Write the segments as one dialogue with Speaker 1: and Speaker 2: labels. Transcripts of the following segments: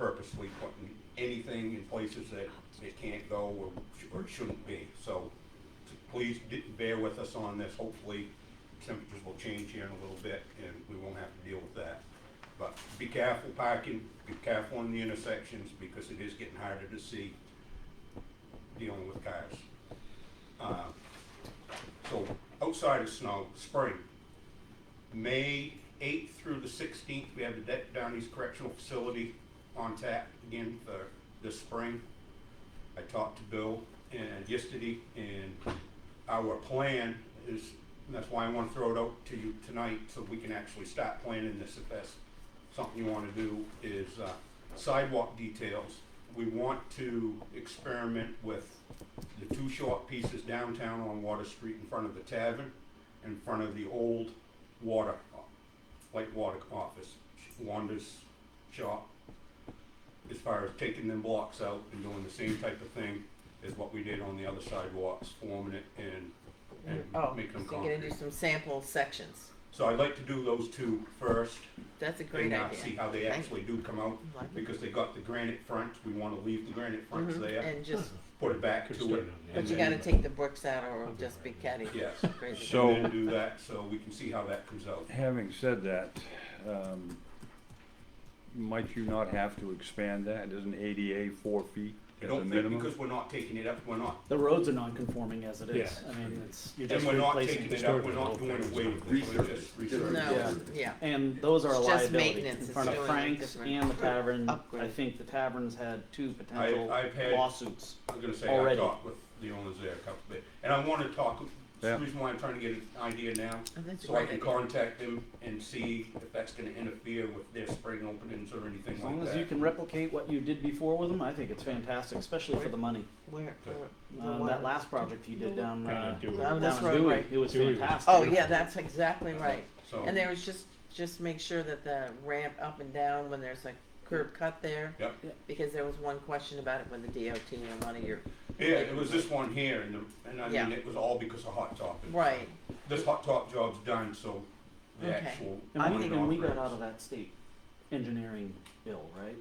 Speaker 1: purposely putting anything in places that it can't go or, sh- or shouldn't be. So t- please d- bear with us on this. Hopefully temperatures will change here in a little bit and we won't have to deal with that. But be careful parking, be careful in the intersections because it is getting harder to see dealing with cars. Uh, So outside of snow, spring, May 8th through the 16th, we have the De- Downey's Correctional Facility on tap again for this spring. I talked to Bill and yesterday, and our plan is, and that's why I want to throw it out to you tonight, so we can actually start planning this if that's something you want to do, is uh, sidewalk details. We want to experiment with the two short pieces downtown on Water Street in front of the tavern, in front of the old water, light water office, Wanda's shop, as far as taking them blocks out and doing the same type of thing as what we did on the other sidewalks, forming it and,
Speaker 2: Oh,
Speaker 1: and making them
Speaker 2: so you're gonna do
Speaker 1: concrete.
Speaker 2: some sample sections.
Speaker 1: So I'd like to do those two first
Speaker 2: That's a great
Speaker 1: and uh,
Speaker 2: idea.
Speaker 1: see how they
Speaker 2: Thank-
Speaker 1: actually do come out,
Speaker 2: Like-
Speaker 1: because they got the granite fronts, we wanna leave the granite fronts
Speaker 2: Mhm,
Speaker 1: there,
Speaker 2: And just,
Speaker 1: put it back to it.
Speaker 2: but you
Speaker 1: then-
Speaker 2: gotta take the bricks out or it'll just be catty.
Speaker 1: Yes.
Speaker 2: Crazy.
Speaker 3: So-
Speaker 1: And then do that, so we can see how that comes out.
Speaker 3: Having said that, um, might you not have to expand that? Isn't ADA four feet
Speaker 1: I
Speaker 3: at the
Speaker 1: don't think,
Speaker 3: minimum?
Speaker 1: because we're not taking it up, we're not,
Speaker 4: The roads are non-conforming as it is.
Speaker 5: Yeah.
Speaker 4: I mean, it's, you're
Speaker 1: and
Speaker 4: just
Speaker 1: we're not
Speaker 4: replacing.
Speaker 1: taking it up, we're not doing away with it, we're just resurfacing.
Speaker 2: No,
Speaker 5: Yeah.
Speaker 2: yeah,
Speaker 4: And those are a
Speaker 2: It's just
Speaker 4: liability in
Speaker 2: maintenance,
Speaker 4: front
Speaker 1: it's
Speaker 4: of
Speaker 2: doing a
Speaker 4: Frank's
Speaker 2: different
Speaker 4: and the tavern. I
Speaker 2: upgrade.
Speaker 4: think the tavern's had two potential
Speaker 1: I've had-
Speaker 4: lawsuits.
Speaker 1: I'm gonna say I
Speaker 4: Already.
Speaker 1: talked with the owners there a couple bit, and I wanna talk, that's the reason why I'm trying to get an idea now,
Speaker 2: Oh, that's a
Speaker 1: so I can
Speaker 2: great idea.
Speaker 1: contact them and see if that's gonna interfere with their spring openings or anything like
Speaker 4: As
Speaker 1: that.
Speaker 4: long as you can replicate what you did before with them, I think it's fantastic, especially for the money.
Speaker 2: Where, where- the Oh,
Speaker 4: Uh,
Speaker 2: one-
Speaker 4: that last project you did down, uh,
Speaker 2: Down
Speaker 4: down
Speaker 2: this
Speaker 4: in
Speaker 2: road,
Speaker 4: Dewey,
Speaker 2: right.
Speaker 4: it was
Speaker 5: Dewey.
Speaker 4: fantastic.
Speaker 2: Oh, yeah, that's exactly right.
Speaker 1: Uh, So-
Speaker 2: And there was just, just make sure that the ramp up and down when there's a curb cut there.
Speaker 1: Yep.
Speaker 4: Yep.
Speaker 2: Because there was one question about it when the DOT and one of your,
Speaker 1: Yeah, it was this one here, and, the- and I
Speaker 2: Yeah.
Speaker 1: mean, it was all because of Hot Top. and-
Speaker 2: right,
Speaker 1: This Hot Top job's done, so the
Speaker 2: Okay.
Speaker 1: actual.
Speaker 4: And
Speaker 2: I'm
Speaker 4: we,
Speaker 1: one
Speaker 4: and we got
Speaker 1: operates.
Speaker 4: out of that state engineering bill, right?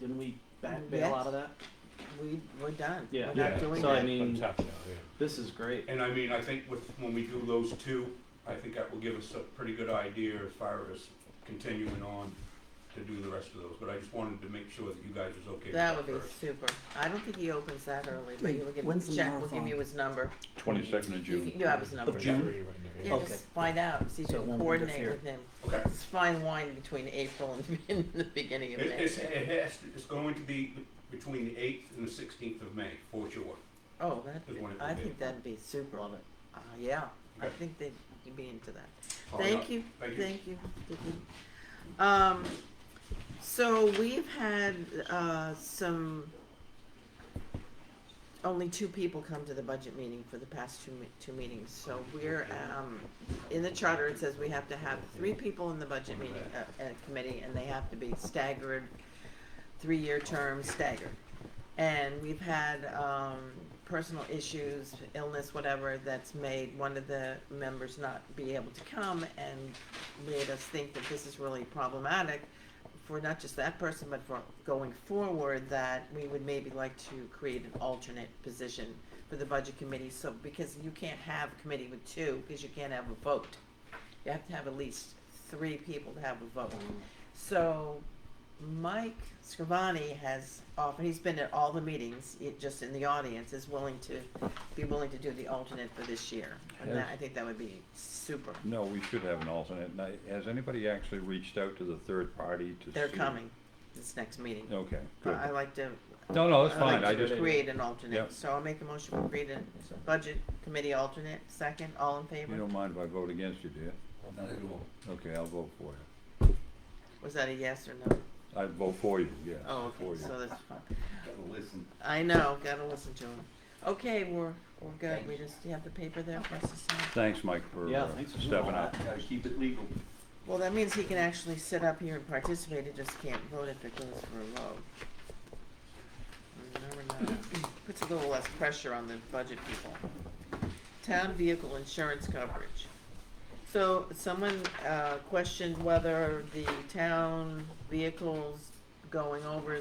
Speaker 4: Didn't we back
Speaker 2: Mm, Yes.
Speaker 4: bail out of that?
Speaker 2: we, we're done.
Speaker 4: Yeah.
Speaker 2: We're
Speaker 5: Yeah,
Speaker 2: not doing
Speaker 4: so I
Speaker 2: that.
Speaker 4: mean-
Speaker 5: tough now, yeah.
Speaker 4: This is great.
Speaker 1: And I mean, I think with, when we do those two, I think that will give us a pretty good idea as far as continuing on to do the rest of those, but I just wanted to make sure that you guys was okay with
Speaker 2: That
Speaker 1: that
Speaker 2: would be
Speaker 1: first.
Speaker 2: super. I don't think he opens that early, but you will
Speaker 4: When's
Speaker 2: give,
Speaker 4: the
Speaker 2: Jack will give
Speaker 4: marathon?
Speaker 2: you his number.
Speaker 3: Twenty-second of
Speaker 2: You
Speaker 3: June.
Speaker 2: can- you have his number.
Speaker 4: June?
Speaker 5: February right now, yeah.
Speaker 2: Yeah,
Speaker 4: Okay.
Speaker 2: just find out, see if
Speaker 4: So
Speaker 2: you
Speaker 4: it
Speaker 2: can
Speaker 4: won't
Speaker 2: coordinate
Speaker 4: interfere.
Speaker 2: with him.
Speaker 1: Okay,
Speaker 2: It's fine wine between April and, and the beginning
Speaker 1: it,
Speaker 2: of May.
Speaker 1: it's, it has, to- it's going to be between the eighth and the sixteenth of May, for sure.
Speaker 2: Oh,
Speaker 1: Is when it
Speaker 2: that,
Speaker 1: will
Speaker 2: I
Speaker 1: be.
Speaker 2: think that'd be super.
Speaker 4: Love it.
Speaker 2: Uh, yeah, I
Speaker 1: Okay.
Speaker 2: think they'd you'd be into that.
Speaker 1: Probably
Speaker 2: Thank
Speaker 1: not.
Speaker 2: you,
Speaker 1: Oh, Thank you.
Speaker 2: thank you. Vicky. Um, so we've had, uh, some, only two people come to the budget meeting for the past two, me- two meetings. So we're, um, in the charter, it says we have to have three people in the budget meeting, uh, uh, committee, and they have to be staggered, three-year terms staggered. And we've had, um, personal issues, illness, whatever, that's made one of the members not be able to come and made us think that this is really problematic for not just that person, but for going forward, that we would maybe like to create an alternate position for the budget committee, so, because you can't have a committee with two, because you can't have a vote. You have to have at least three people to have a vote. So Mike Scrivani has often, he's been at all the meetings, it- just in the audience, is willing to, be willing to do the alternate for this year. And that- I think that would be super.
Speaker 3: No, we should have an alternate. Now, has anybody actually reached out to the third party to see?
Speaker 2: They're coming this next meeting.
Speaker 3: Okay,
Speaker 2: But
Speaker 3: good.
Speaker 2: I like to,
Speaker 3: No, no, that's
Speaker 2: I like
Speaker 3: fine. I
Speaker 2: to
Speaker 3: just,
Speaker 2: create an
Speaker 3: Yep.
Speaker 2: alternate, so I'll make a motion to create a budget committee alternate, second, all in
Speaker 3: you
Speaker 2: favor?
Speaker 3: don't mind if I vote against you, do you? Okay, I'll vote for you.
Speaker 2: Was that a yes or no?
Speaker 3: I vote for you, yes.
Speaker 2: Oh,
Speaker 3: for
Speaker 2: okay,
Speaker 3: you.
Speaker 2: so that's fine. I know, gotta listen to him. Okay, we're, we're good, we just, you have the paper there for us to sign?
Speaker 3: Thanks, Mike, for
Speaker 4: Yeah,
Speaker 3: uh,
Speaker 4: thanks for doing all
Speaker 3: stepping
Speaker 4: that.
Speaker 3: up.
Speaker 6: Gotta keep it legal.
Speaker 2: Well, that means he can actually sit up here and participate, he just can't vote if it goes for a vote. You never know. Puts a little less pressure on the budget people. Town vehicle insurance coverage. So someone uh, questioned whether the town vehicles going over